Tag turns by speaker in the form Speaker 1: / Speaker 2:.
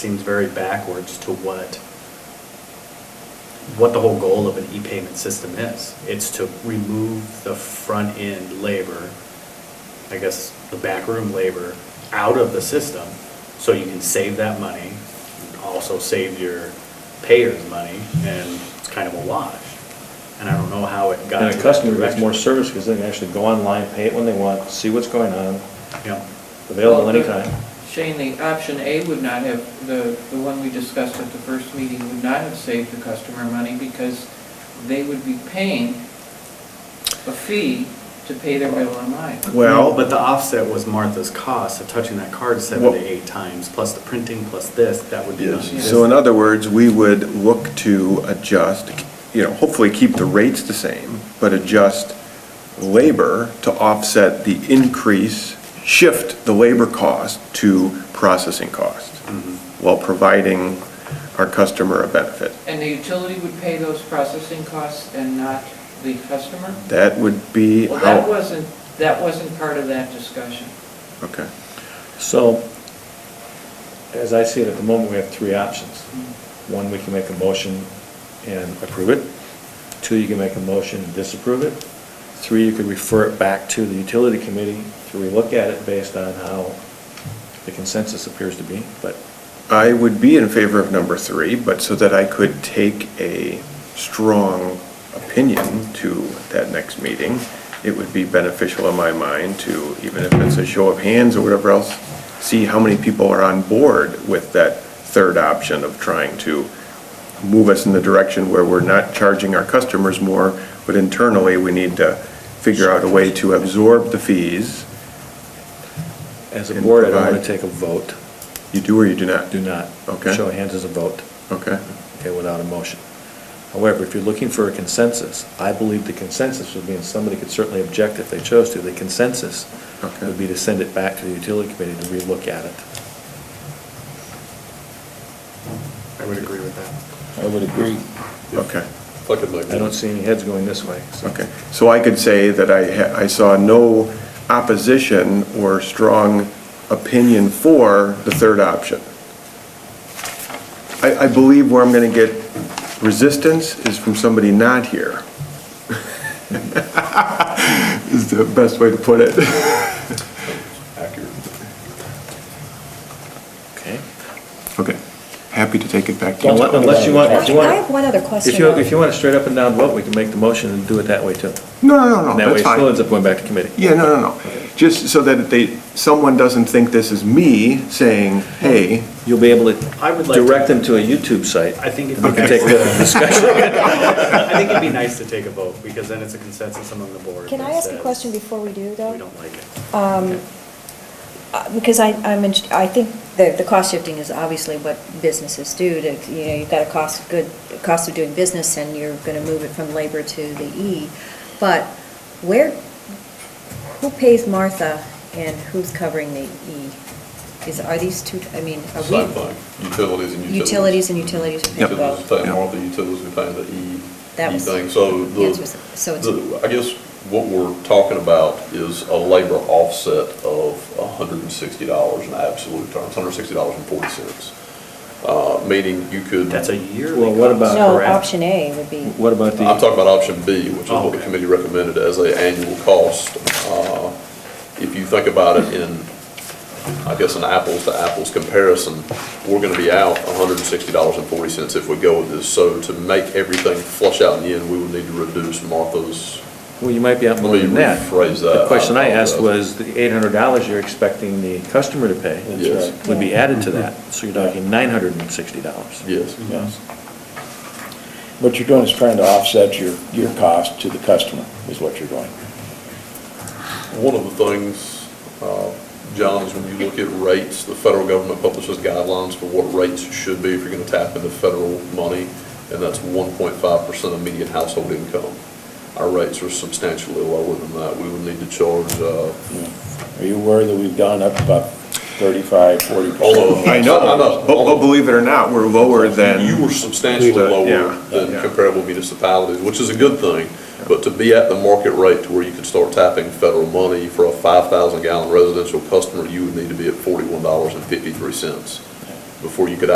Speaker 1: seems very backwards to what, what the whole goal of an e-payment system is. It's to remove the front-end labor, I guess, the backroom labor, out of the system, so you can save that money, also save your payers money, and it's kind of a wash. And I don't know how it got
Speaker 2: And
Speaker 1: to that
Speaker 2: a customer gets
Speaker 1: direction.
Speaker 2: more service because they can actually go online, pay it when they want, see what's going on,
Speaker 1: Yeah.
Speaker 2: available
Speaker 3: Well, the-
Speaker 2: anytime.
Speaker 3: Shane, the option A would not have, the, the one we discussed at the first meeting would not have saved the customer money because they would be paying a fee to pay their bill online.
Speaker 1: No, But the offset was Martha's cost of touching that card seven to eight times, plus the printing, plus this, that would be.
Speaker 4: Yes,
Speaker 1: non-existent.
Speaker 4: so in other words, we would look to adjust, you know, hopefully keep the rates the same, but adjust labor to offset the increase, shift the labor cost to processing cost, while providing our customer a benefit.
Speaker 3: And the utility would pay those processing costs and not the customer?
Speaker 4: That would be
Speaker 3: Well, that
Speaker 4: how,
Speaker 3: wasn't, that wasn't part of that discussion.
Speaker 4: okay.
Speaker 2: So, as I see it at the moment, we have three options. One, we can make a motion and approve it. Two, you can make a motion and disapprove it. Three, you could refer it back to the utility committee to relook at it based on how the consensus appears to be, but
Speaker 4: I would be in favor of number three, but so that I could take a strong opinion to that next meeting, it would be beneficial in my mind to, even if it's a show of hands or whatever else, see how many people are on board with that third option of trying to move us in the direction where we're not charging our customers more, but internally, we need to figure out a way to absorb the fees.
Speaker 2: as a
Speaker 4: And
Speaker 2: board, I don't want
Speaker 4: provide-
Speaker 2: to take a vote.
Speaker 4: You do or you do not?
Speaker 2: Do not.
Speaker 4: Okay.
Speaker 2: Show of hands as a vote.
Speaker 4: Okay.
Speaker 2: okay, without a motion. However, if you're looking for a consensus, I believe the consensus would be, and somebody could certainly object if they chose to, the consensus
Speaker 4: Okay.
Speaker 2: would be to send it back to the utility committee to relook at it.
Speaker 1: I would agree with that.
Speaker 2: I would agree.
Speaker 4: Okay.
Speaker 5: Look at my.
Speaker 2: I don't see any heads going this way, so.
Speaker 4: Okay, so I could say that I, ha- I saw no opposition or strong opinion for the third option. I, I believe where I'm going to get resistance is from somebody not here. Is the best way to put it.
Speaker 5: Accurate.
Speaker 2: Okay.
Speaker 4: Okay, happy to take it back to you.
Speaker 2: Unless unless you want, if you
Speaker 6: Can I have
Speaker 2: want,
Speaker 6: one other
Speaker 2: if you, if
Speaker 6: question?
Speaker 2: you want a straight up and down vote, we can make the motion and do it that way too.
Speaker 4: No, no,
Speaker 2: That
Speaker 4: no, no,
Speaker 2: way
Speaker 4: Oh, that's
Speaker 2: it
Speaker 4: fine.
Speaker 2: still ends up going back to committee.
Speaker 4: Yeah, no, no, no. Just so that they, someone doesn't think this is me saying, hey,
Speaker 2: You'll be able to
Speaker 1: I would like to-
Speaker 2: direct them to a YouTube site.
Speaker 1: I think it'd
Speaker 2: We
Speaker 1: be nice,
Speaker 2: can take the discussion.
Speaker 1: I think it'd be nice to take a vote, because then it's a consensus among the board.
Speaker 6: Can I
Speaker 1: that
Speaker 6: ask a
Speaker 2: uh,
Speaker 1: says
Speaker 6: question before we do,
Speaker 1: We
Speaker 6: though?
Speaker 1: don't like it.
Speaker 6: Uh, Because I, I'm, in- I think the, the cost shifting is obviously what businesses do to, you know, you've got a cost, of good, cost of doing business and you're gonna move it from labor to the E. But where, who pays Martha and who's covering the E? Is, are these two, I mean, are
Speaker 5: Sci-fi,
Speaker 6: we?
Speaker 5: utilities and utilities.
Speaker 6: Utilities and utilities are paid
Speaker 5: Utilities
Speaker 6: both.
Speaker 5: are paying all the utilities, we're paying the E,
Speaker 6: That
Speaker 5: E
Speaker 6: was-
Speaker 5: thing, so the.
Speaker 6: Yes, was- so it's-
Speaker 5: the- I guess what we're talking about is a labor offset of hundred and sixty dollars in absolute terms, hundred and sixty dollars and forty cents. Uh, meaning you could.
Speaker 1: That's a yearly
Speaker 2: Well, what
Speaker 1: cost,
Speaker 2: about-
Speaker 6: No,
Speaker 1: correct?
Speaker 6: option A would be,
Speaker 2: What about the?
Speaker 5: I'm talking about option B, which is
Speaker 1: Oh,
Speaker 5: what the
Speaker 1: okay.
Speaker 5: committee recommended as a annual cost. Uh, If you think about it in, I guess, an apples-to-apples comparison, we're gonna be out hundred and sixty dollars and forty cents if we go with this. So to make everything flush out in the end, we would need to reduce Martha's,
Speaker 2: Well, you might be out more
Speaker 5: Let me
Speaker 2: than that.
Speaker 5: rephrase that.
Speaker 2: The question I asked
Speaker 5: I
Speaker 2: was, the eight hundred dollars you're expecting the customer to pay
Speaker 5: Yes. right.
Speaker 2: would be added to that, so you're talking nine hundred and sixty dollars.
Speaker 5: yes.
Speaker 7: Yes. What you're doing is trying to offset your, your cost to the customer, is what you're doing.
Speaker 5: One of the things, uh, John, is when you look at rates, the federal government publishes guidelines for what rates should be if you're going to tap into federal money, and that's 1.5% of median household income. Our rates are substantially lower than that. We would need to charge, uh,
Speaker 7: Are you aware that we've gone up about 35, 40 percent?
Speaker 5: although.
Speaker 4: I know, but, but believe it or not, we're lower than.
Speaker 5: You were substantially
Speaker 4: Yeah,
Speaker 5: lower
Speaker 4: yeah.
Speaker 5: than comparable municipalities, which is a good thing. But to be at the market rate to where you could start tapping federal money for a 5,000 gallon residential customer, you would need to be at $41.53 before you could